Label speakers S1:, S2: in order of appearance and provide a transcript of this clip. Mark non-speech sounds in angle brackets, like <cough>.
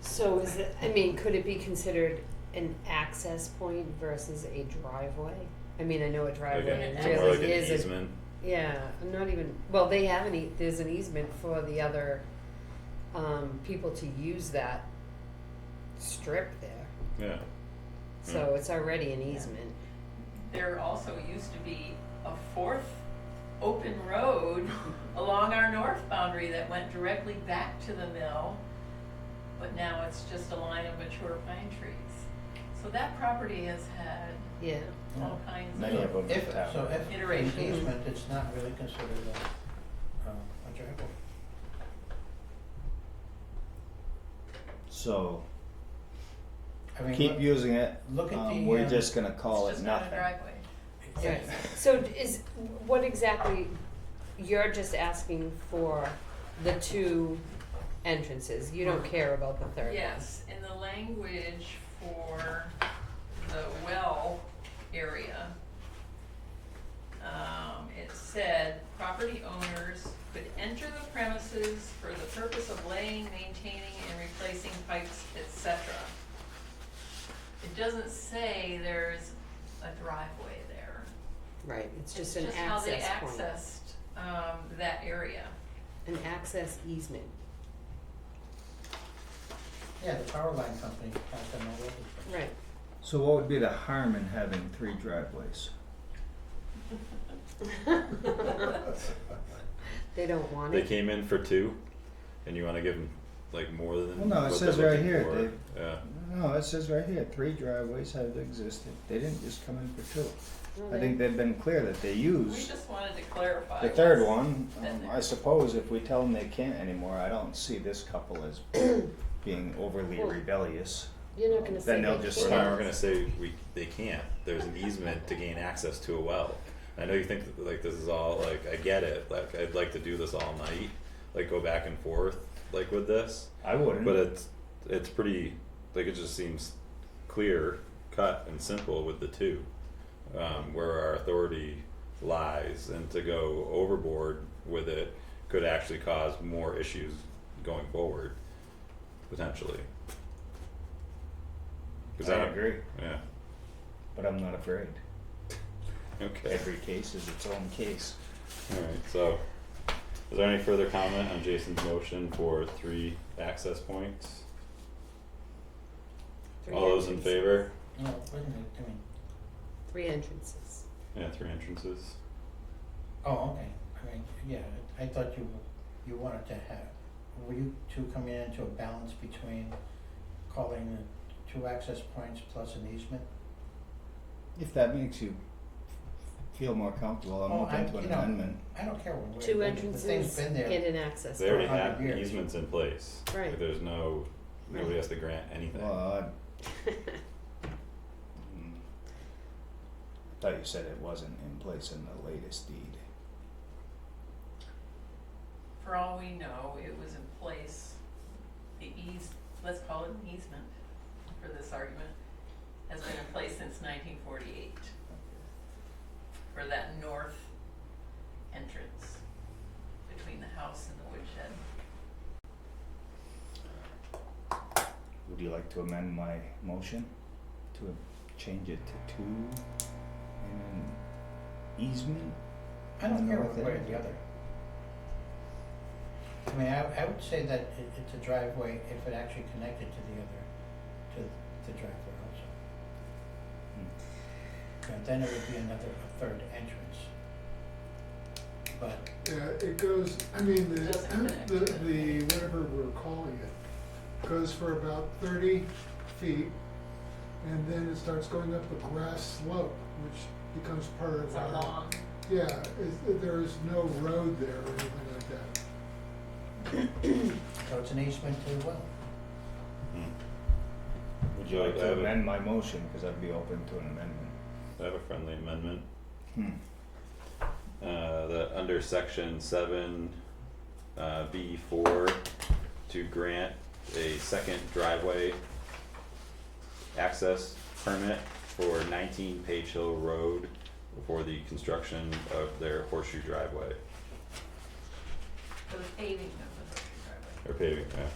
S1: So is it, I mean, could it be considered an access point versus a driveway? I mean, I know a
S2: Like
S1: driveway
S2: an,
S3: an
S2: more like an
S1: really is a
S2: easement.
S1: Yeah, I'm not even, well, they have an, e- there's an easement for the other, um, people to use that strip there.
S2: Yeah. Hmm.
S1: So it's already an
S3: Yeah.
S1: easement.
S3: There also used to be a fourth open road <laughs> along our north boundary that went directly back to the mill, but now it's just a line of mature pine trees. So that property has had
S1: Yeah,
S3: all kinds
S4: Many
S3: of,
S4: of them
S5: If,
S4: have.
S5: so if
S3: Iteration.
S5: an easement, it's not really considered a, um, a driveway.
S4: So,
S5: I mean,
S4: keep
S5: look-
S4: using it,
S5: look at
S4: um,
S5: the,
S4: we're
S5: um,
S4: just gonna call
S3: it's
S4: it
S3: just not a
S4: nothing.
S3: driveway.
S1: right. So d- is, what exactly, you're just asking for the two entrances, you don't care about the third one?
S3: Yes, in the language for the well area, um, it said, property owners could enter the premises for the purpose of laying, maintaining, and replacing pipes, et cetera. It doesn't say there's a driveway there.
S1: Right, it's
S3: It's
S1: just an access
S3: Just
S1: point,
S3: how they accessed, um, that area.
S1: an access easement.
S5: Yeah, the power line company has them all over.
S1: Right.
S4: So what would be the harm in having three driveways?
S1: <laughs> They don't want
S2: They
S1: it.
S2: came in for two, and you want to give them like more than.
S4: Well, no, it
S2: what
S4: says
S2: they're
S4: right
S2: looking
S4: here,
S2: for.
S4: Dave.
S2: Yeah.
S4: No, it says right here, three driveways have existed, they didn't just come in for two.
S1: No,
S4: I
S1: they-
S4: think they've been clear that they
S3: We
S4: use
S3: just wanted to clarify.
S4: the third
S3: what's-
S4: one,
S3: been
S4: um,
S3: there.
S4: I suppose if we tell them they can't anymore, I don't see this couple
S5: <coughs>
S4: as being overly
S1: Well,
S4: rebellious.
S1: You're not gonna say.
S4: Then they'll
S1: they
S4: just
S2: We're
S1: can't.
S2: not. We're gonna say we they can't. There's an easement to gain access to a well. I know you think that, like this is all like I get it. Like I'd like to do this all night, like go back and forth like with this,
S4: I wouldn't.
S2: but it's it's pretty like it just seems clear, cut and simple with the two, um, where our authority lies, and to go overboard with it could actually cause more issues going forward, potentially. 'Cause
S4: I
S2: don't-
S4: agree,
S2: Yeah.
S4: but I'm not afraid.
S2: Okay.
S4: Every case is its own case.
S2: Alright, so is there any further comment on Jason's motion for three access points?
S1: Three
S2: All those in
S1: entrances.
S2: favor?
S5: No, wait a minute, I mean,
S1: Three entrances.
S2: Yeah, three entrances.
S5: oh, okay, I mean, yeah, I thought you, you wanted to have, were you two coming into a balance between calling the two access points plus an easement?
S4: If that makes you feel more comfortable, I'm
S5: Oh, I-
S4: open to an
S5: you know,
S4: amendment.
S5: I don't care what
S1: Two
S5: we're, the thing's
S1: entrances
S5: been
S1: and
S5: there.
S1: an access.
S2: They already
S1: point.
S5: For a hundred
S2: have
S5: years.
S2: easements in place. Like,
S1: Right.
S2: There's no, nobody has to grant anything.
S4: Well, I
S1: <laughs>
S4: mm, thought you said it wasn't in place in the latest deed.
S3: For all we know, it was in place, the eas, let's call it an easement for this argument, has been in place since nineteen forty-eight for that north entrance between the house and the woodshed.
S4: Would you like to amend my motion to change it to two and an easement?
S5: I don't care
S4: No,
S5: one
S4: they-
S5: way or the other. I mean, I, I would say that it, it's a driveway if it actually connected to the other, to the driveway also.
S4: Hmm.
S5: And then it would be another, a third entrance. But,
S6: Yeah, it goes, I mean, the,
S3: Doesn't connect.
S6: the, the, whatever we're calling it, goes for about thirty feet, and then it starts going up a grass slope, which becomes part
S3: It's
S6: of
S3: a
S6: our.
S3: long,
S6: Yeah, it, there is no road there or anything like that.
S5: so it's an easement to the well.
S2: Hmm. Would
S4: Would you like
S2: I
S4: to
S2: have, a-
S4: amend my motion, cause I'd be open to an amendment?
S2: I have a friendly amendment.
S4: Hmm,
S2: Uh, the, under section seven, uh, B four, to grant a second driveway access permit for nineteen Page Hill Road for the construction of their horseshoe driveway,
S3: for the paving of the driveway.
S2: or paving, uh, yeah.